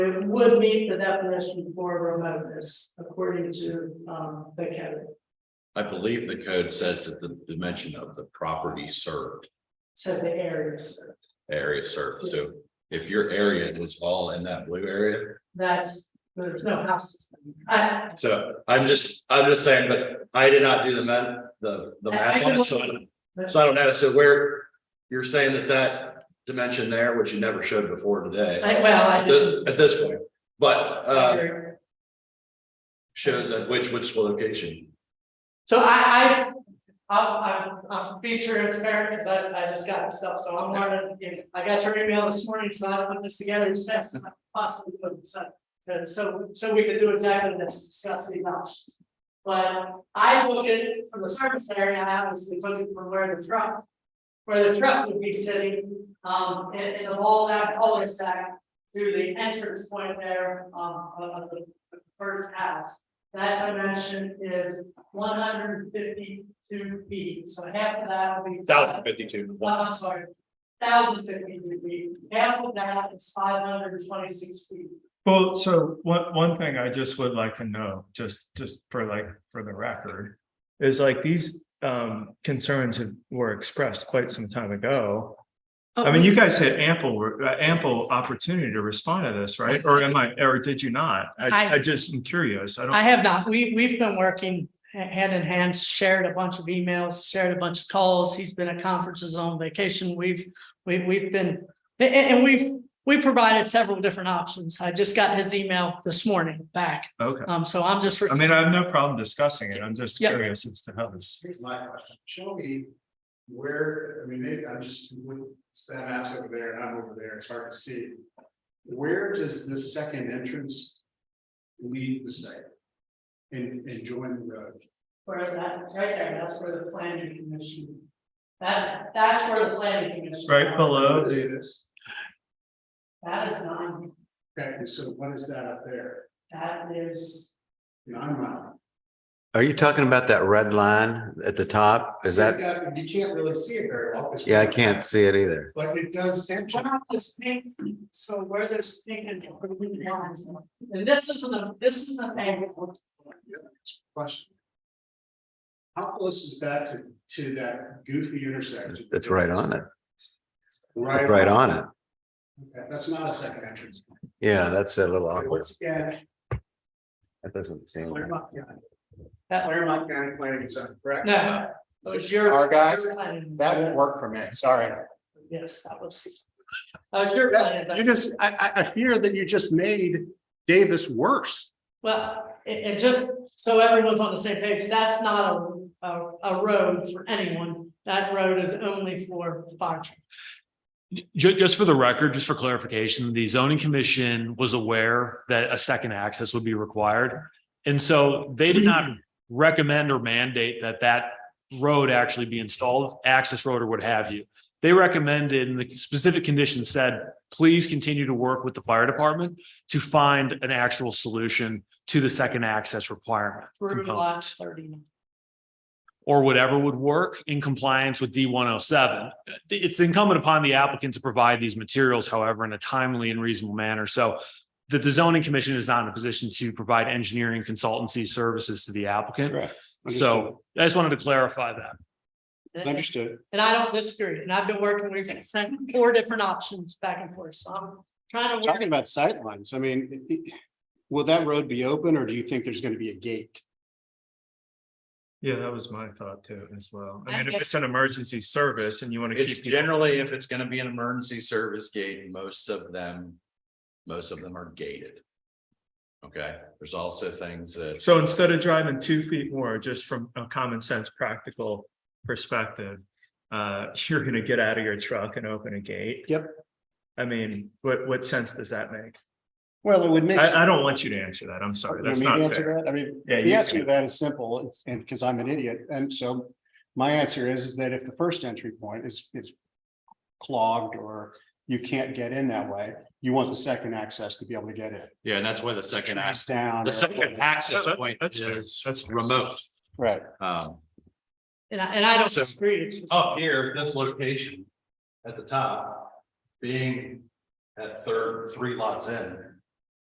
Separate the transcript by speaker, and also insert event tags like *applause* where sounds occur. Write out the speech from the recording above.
Speaker 1: it would meet the definition for remoteness according to, um, the code.
Speaker 2: I believe the code says that the dimension of the property served,
Speaker 1: So the areas,
Speaker 2: area served, so. If your area was all in that blue area,
Speaker 1: that's, there's no houses. I,
Speaker 2: so I'm just, I'm just saying, but I did not do the math, the, the math on it, so. I don't- So I don't know, so where, you're saying that that dimension there, which you never showed before today,
Speaker 1: I, well, I
Speaker 2: at thi-
Speaker 1: didn't.
Speaker 2: at this point, but, uh, shows at which, which location?
Speaker 1: So I, I, I'm, I'm, I'm being transparent because I, I just got this stuff, so I'm learning, you know, I got your email this morning, so I put this together as fast as I possibly could, so. uh, So, so we could do exactly this, discuss the options. But I took it from the surface area, I obviously took it from where the truck, where the truck would be sitting, um, in, in the wall that cul-de-sac. Through the entrance point there, um, of of the the first house, that dimension is one hundred and fifty-two feet, so half of that would be.
Speaker 2: fifty-two.
Speaker 1: Oh, I'm sorry, thousand fifty-two feet, half of that is five hundred and twenty-six feet.
Speaker 3: Well, so one, one thing I just would like to know, just, just for like, for the record, is like these um concerns have- were expressed quite some time ago.
Speaker 1: Oh.
Speaker 3: I mean, you guys had ample, uh, ample opportunity to respond to this, right? Or am I, or did you not?
Speaker 1: I-
Speaker 3: I, I just am curious. I
Speaker 1: I
Speaker 3: don't,
Speaker 1: have not, we, we've been working ha- hand in hand, shared a bunch of emails, shared a bunch of calls, he's been at conferences on vacation, we've, we, we've been, a- a- and, we've, we provided several different options, I just got his email this morning back,
Speaker 3: okay.
Speaker 1: um, so I'm just.
Speaker 3: I mean, I have no problem discussing it. I'm just
Speaker 1: Yeah.
Speaker 3: curious as to how this.
Speaker 4: Here's my question, show me where, I mean, maybe I'm just, it's that map's over there and I'm over there, it's hard to see. Where does the second entrance lead the site? And, and join the road?
Speaker 1: Where that, right there, that's where the planning commission, that, that's where the planning commission.
Speaker 3: Right below
Speaker 4: What is
Speaker 3: the,
Speaker 4: this?
Speaker 1: That is nine,
Speaker 4: Okay, and so what is that up there?
Speaker 1: that is,
Speaker 4: You know, I'm not.
Speaker 5: Are you talking about that red line at the top? Is
Speaker 4: It's
Speaker 5: that,
Speaker 4: got- You can't really see it very well. 'cause-
Speaker 5: yeah, I can't see it either.
Speaker 4: But it does.
Speaker 1: there's one of those pink, so where there's pink and green lines. And this isn't a, this isn't a,
Speaker 4: Question. How close is that to, to that goofy intersection?
Speaker 5: It's right on it.
Speaker 4: Right.
Speaker 5: It's right on it.
Speaker 4: Okay, That's not a second entrance.
Speaker 5: Yeah, that's a little awkward.
Speaker 4: Once again,
Speaker 5: That doesn't seem.
Speaker 4: Claremont County. Claremont County Planning Consent, correct?
Speaker 1: no. It was your-
Speaker 4: Our guys,
Speaker 1: your plan.
Speaker 4: That won't work for me, sorry.
Speaker 1: Yes, that was. That was your plan.
Speaker 4: You just, I, I, I fear that you just made Davis worse.
Speaker 1: Well, and, and just so everyone's on the same page, that's not a, a, a road for anyone. That road is only for fire trucks.
Speaker 6: Ju- just for the record, just for clarification, the zoning commission was aware that a second access would be required. And so they did not
Speaker 3: Mm-hmm.
Speaker 6: recommend or mandate that that road actually be installed, access road or what have you. They recommended, and the specific conditions said, please continue to work with the fire department to find an actual solution to the second access requirement.
Speaker 1: through
Speaker 6: component
Speaker 1: lot thirty-nine.
Speaker 6: or whatever would work in compliance with D one oh seven. It's incumbent upon the applicant to provide these materials, however, in a timely and reasonable manner. So that the zoning commission is not in a position to provide engineering consultancy services to the applicant. So I just wanted to clarify that.
Speaker 1: And
Speaker 4: Understood.
Speaker 1: and I don't disagree, and I've been working, we've sent four different options back and forth, so I'm trying to work.
Speaker 4: Talking about sightlines, I mean, it- it- will that road be open or do you think there's gonna be a gate?
Speaker 3: yeah, that was my thought too as well. I
Speaker 1: I
Speaker 3: mean, if
Speaker 1: guess-
Speaker 3: it's an emergency service and you want to
Speaker 2: It's
Speaker 3: keep. people-
Speaker 2: generally, if it's gonna be an emergency service gate, most of them, most of them are gated. Okay, there's also things that,
Speaker 3: So instead of driving two feet more, just from a common sense, practical perspective, uh, *laughs* you're gonna get out of your truck and open a gate.
Speaker 4: Yep.
Speaker 3: I mean, what, what sense does that make?
Speaker 4: Well, it would make.
Speaker 3: I, I don't want you to answer that. I'm sorry.
Speaker 4: You want
Speaker 3: That's
Speaker 4: me to
Speaker 3: not
Speaker 4: answer
Speaker 3: fair.
Speaker 4: that? I mean,
Speaker 3: Yeah,
Speaker 4: The
Speaker 3: you
Speaker 4: answer to
Speaker 3: can.
Speaker 4: that is simple, it's- and because I'm an idiot, and so my answer is, is that if the first entry point is, is clogged or you can't get in that way, you want the second access to be able to get in.
Speaker 2: yeah, and that's why the second
Speaker 4: Trees
Speaker 2: access,
Speaker 4: down.
Speaker 2: the second access
Speaker 3: That's-
Speaker 2: point
Speaker 3: that's fair.
Speaker 2: is
Speaker 3: That's fair.
Speaker 2: remote.
Speaker 4: Right.
Speaker 2: Um,
Speaker 1: And I, and I don't
Speaker 2: So-
Speaker 1: disagree, it's just,
Speaker 2: up here, this location at the top, being at third, three lots in,